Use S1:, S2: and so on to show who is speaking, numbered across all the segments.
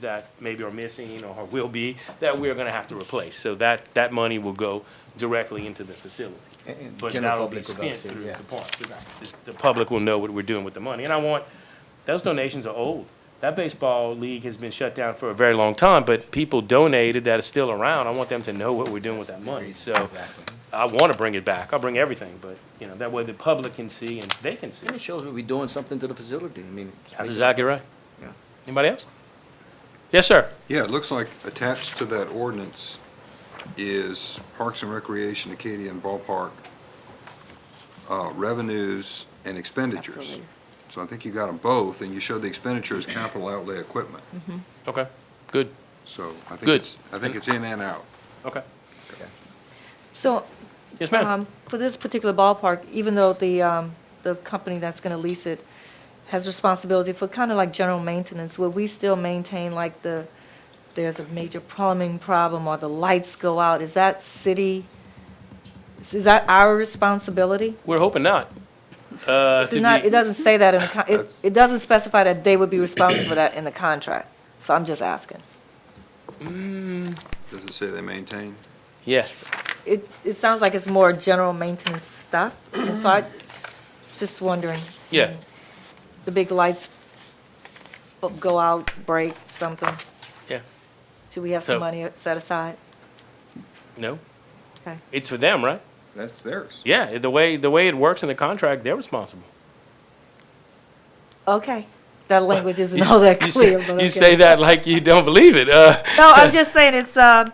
S1: that maybe are missing or will be, that we're gonna have to replace. So that, that money will go directly into the facility.
S2: And- and
S1: But that'll
S2: general
S1: be
S2: public will go
S1: spent
S2: to,
S1: through
S2: yeah.
S1: the park. The- The public will know what we're doing with the money. And I want, those donations are old. That baseball league has been shut down for a very long time, but people donated that are still around. I want them to know what we're doing with that money. So
S2: Exactly.
S1: I wanna bring it back. I'll bring everything, but, you know, that way the public can see and they can see.
S2: And it shows we'll be doing something to the facility, I mean. it's
S1: That's
S2: making-
S1: exactly right.
S2: Yeah.
S1: Anybody else? Yes, sir.
S3: Yeah, it looks like attached to that ordinance is Parks and Recreation Acadian Ballpark uh, revenues and expenditures. So I think you got them both, and you showed the expenditures capital outlay equipment.
S1: Okay, good,
S3: So I think
S1: Good.
S3: it's, I think it's in and out.
S1: okay.
S4: So,
S1: Yes, ma'am.
S4: um, for this particular ballpark, even though the, um, the company that's gonna lease it has responsibility for kind of like general maintenance, will we still maintain like the, there's a major plumbing problem or the lights go out, is that city, is that our responsibility?
S1: We're hoping not. Uh,
S4: It's not, it
S1: to be-
S4: doesn't say that in the, con- it, it doesn't specify that they would be responsible for that in the contract, so I'm just asking.
S3: Does it say they maintain?
S1: Mm, Yes,
S4: It, it sounds like it's more general maintenance stuff, and so I, just wondering.
S1: yeah,
S4: the big lights bu- go out, break, something?
S1: yeah,
S4: Should we have
S1: So-
S4: some money set aside?
S1: no.
S4: Okay.
S1: It's for them, right?
S3: That's theirs.
S1: Yeah, the way, the way it works in the contract, they're responsible.
S4: Okay, that language isn't all that
S1: You say-
S4: clear, but okay.
S1: You say that like you don't believe it. Uh,
S4: No, I'm just saying, it's, uh,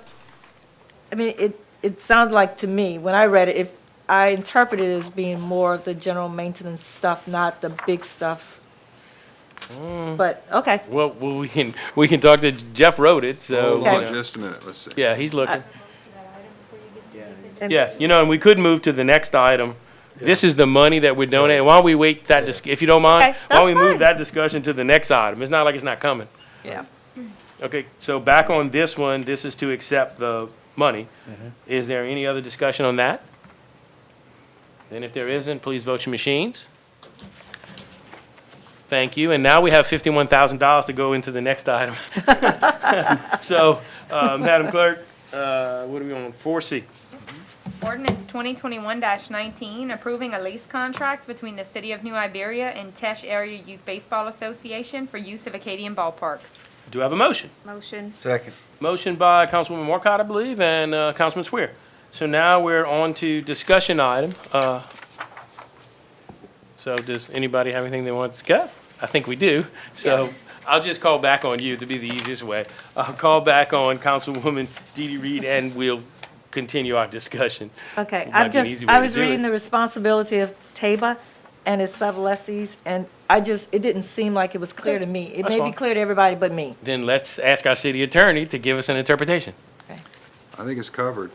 S4: I mean, it, it sounds like to me, when I read it, if, I interpreted it as being more the general maintenance stuff, not the big stuff.
S1: Mm.
S4: But, okay,
S1: well, well, we can, we can talk to Jeff Wrote it, so,
S3: Hold
S1: you
S3: on
S1: know.
S3: just a minute, let's see.
S1: yeah, he's looking.
S4: Uh, and-
S1: Yeah, you know, and we could move to the next item. This is the money that we're donating. Why don't we wait that, dis- if you don't mind?
S4: Okay,
S1: Why don't we
S4: that's
S1: move
S4: fine.
S1: that discussion to the next item? It's not like it's not coming.
S4: yeah.
S1: Okay, so back on this one, this is to accept the money. Is there any other discussion on that? Then if there isn't, please vote your machines. Thank you, and now we have fifty-one thousand dollars to go into the next item. So, uh, Madam Clerk, uh, what are we on, four C?
S5: Ordinance twenty twenty-one nineteen, approving a lease contract between the City of New Iberia and Tesh Area Youth Baseball Association for use of Acadian Ballpark.
S1: Do I have a motion?
S5: Motion.
S2: Second.
S1: Motion by Councilwoman Marcotte, I believe, and uh, Councilman Swear. So now we're on to discussion item. uh, So does anybody have anything they want to discuss? I think we do. So I'll just call back on you to be the easiest way. I'll call back on Councilwoman Dee Dee Reed, and we'll continue our discussion.
S4: Okay,
S1: Might be
S4: I
S1: an
S4: just,
S1: easy way
S4: I
S1: to
S4: was
S1: do
S4: reading
S1: it.
S4: the responsibility of TABA and its sublessees, and I just, it didn't seem like it was clear to me. It
S1: that's
S4: may
S1: fine.
S4: be clear to everybody but me.
S1: Then let's ask our city attorney to give us an interpretation.
S3: I think it's covered.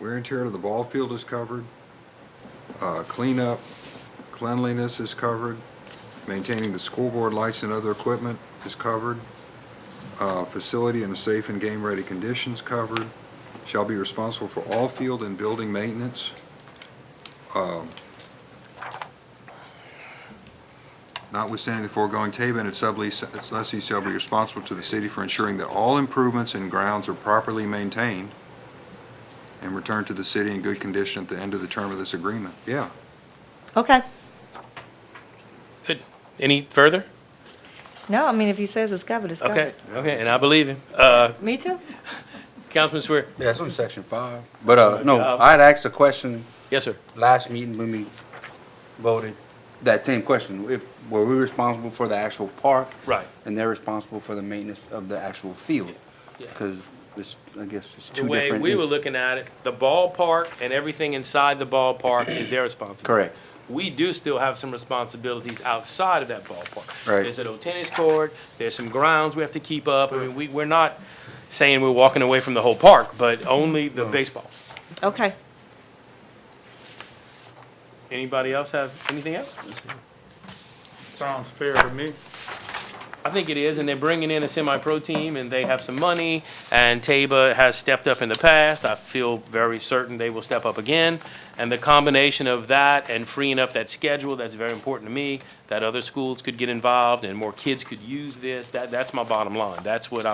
S3: Wear and tear to the ball field is covered. Uh, Cleanup, cleanliness is covered. Maintaining the school board lights and other equipment is covered. Uh, Facility in a safe and game-ready condition is covered. Shall be responsible for all field and building maintenance. Um, Notwithstanding the foregoing, Taven and its sublease, its lessee shall be responsible to the city for ensuring that all improvements and grounds are properly maintained and returned to the city in good condition at the end of the term of this agreement. Yeah,
S4: Okay,
S1: Any further?
S4: no, I mean, if he says it's covered, it's
S1: Okay,
S4: covered.
S1: okay, and I believe him. Uh,
S4: Me too?
S1: Councilman Swear,
S6: Yeah, it's on section five. But, uh, no,
S1: job.
S6: I had asked a question
S1: yes, sir.
S6: last meeting when we voted, that same question, if, were we responsible for the actual park?
S1: Right.
S6: And they're responsible for the maintenance of the actual field?
S1: Yeah, yeah.
S6: Because it's, I guess it's
S1: the
S6: two
S1: way
S6: different.
S1: we were looking at it, the ballpark and everything inside the ballpark is their responsibility.
S6: Correct.
S1: We do still have some responsibilities outside of that ballpark.
S6: Right.
S1: There's an old tennis court, there's some grounds we have to keep up. I mean, we, we're not saying we're walking away from the whole park, but only the baseball.
S4: Okay,
S1: Anybody else have anything else?
S7: Sounds fair to me.
S1: I think it is, and they're bringing in a semi-pro team, and they have some money, and Taba has stepped up in the past. I feel very certain they will step up again. And the combination of that and freeing up that schedule, that's very important to me, that other schools could get involved and more kids could use this, that, that's my bottom line. That's what I